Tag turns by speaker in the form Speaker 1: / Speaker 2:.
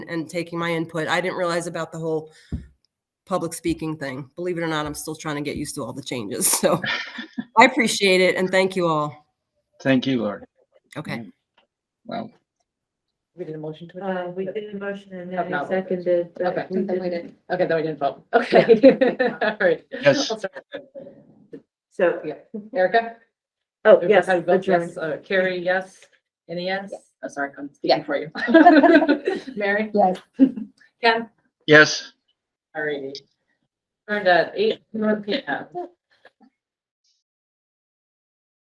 Speaker 1: and taking my input. I didn't realize about the whole public speaking thing. Believe it or not, I'm still trying to get used to all the changes. So I appreciate it and thank you all.
Speaker 2: Thank you, Lori.
Speaker 1: Okay.
Speaker 2: Wow.
Speaker 3: We did a motion to
Speaker 4: Uh,
Speaker 3: adjourn?
Speaker 4: we did a motion and
Speaker 3: Have
Speaker 4: then I
Speaker 3: not voted.
Speaker 4: seconded. but
Speaker 3: Okay,
Speaker 4: we
Speaker 3: then we
Speaker 4: didn't.
Speaker 3: didn't, okay, then we didn't vote. Okay. All right.
Speaker 2: Yes.
Speaker 3: I'll start.
Speaker 4: So,
Speaker 3: Yeah. Erica?
Speaker 4: oh,
Speaker 3: Erica,
Speaker 4: yes,
Speaker 3: how do you vote?
Speaker 4: adjourned.
Speaker 3: Yes. Uh, Carrie, yes. Any yes? I'm sorry, I'm
Speaker 5: Yeah.
Speaker 3: speaking for you. Mary?
Speaker 5: Yes.
Speaker 3: Ken?
Speaker 2: Yes.
Speaker 3: All righty. Turned at eight, P M.